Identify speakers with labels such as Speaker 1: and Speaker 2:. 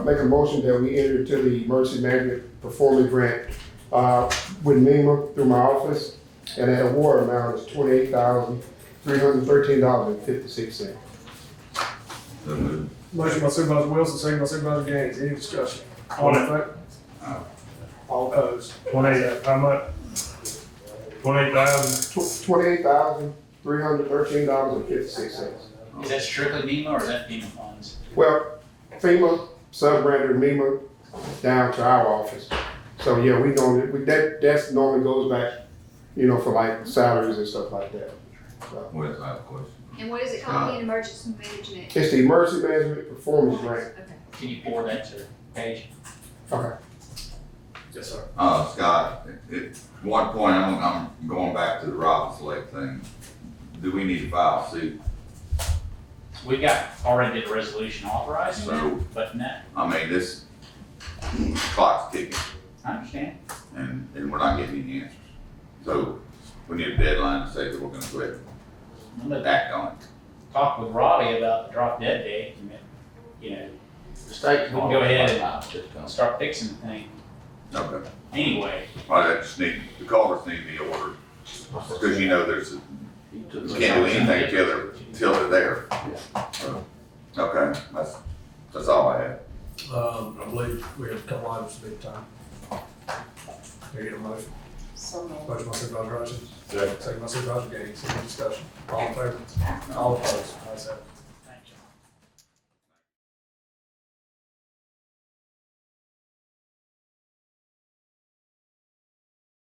Speaker 1: I make a motion that we enter into the emergency management performance grant, uh, with NEMA through my office, and that award amount is twenty-eight thousand, three hundred and thirteen dollars and fifty-six cents.
Speaker 2: So moved.
Speaker 3: Motion by Supervisor Wilson, second by Supervisor Gaines, any discussion? All in favor? All opposed?
Speaker 4: Twenty-eight, how much? Twenty-eight thousand,
Speaker 1: Twenty-eight thousand, three hundred and thirteen dollars and fifty-six cents.
Speaker 5: Is that strictly NEMA or is that FEMA funds?
Speaker 1: Well, FEMA sub-branded NEMA down to our office. So, yeah, we normally, we, that, that's normally goes back, you know, for like salaries and stuff like that. So,
Speaker 2: Where's our question?
Speaker 6: And what is it called again, emergency management?
Speaker 1: It's the emergency management performance grant.
Speaker 6: Okay.
Speaker 5: Can you forward that to Paige?
Speaker 3: Yes, sir.
Speaker 2: Uh, Scott, at one point, I'm, I'm going back to the Robbins Lake thing. Do we need to file suit?
Speaker 5: We got, already did a resolution authorizing that,
Speaker 2: So,
Speaker 5: but no,
Speaker 2: I mean, this clock's ticking
Speaker 5: I understand.
Speaker 2: and, and we're not getting any answers. So we need a deadline to say that we're gonna go ahead
Speaker 5: I'm
Speaker 2: and
Speaker 5: gonna
Speaker 2: act on it.
Speaker 5: talk with Robbie about the drop dead date and, then, you know,
Speaker 7: The state.
Speaker 5: We can go ahead and start fixing the thing
Speaker 2: Okay.
Speaker 5: anyway.
Speaker 2: Well, that just need, the culverts need to be ordered, because you know there's, you can't do anything till they're, till they're there. So, Okay, that's, that's all I have.
Speaker 3: Um, I believe we have a couple items to be time. Can I get a motion?
Speaker 8: So moved.
Speaker 3: Motion by Supervisor Hutchins. Second. by Supervisor Gaines, any discussion? All in favor? All opposed? Ayes have it.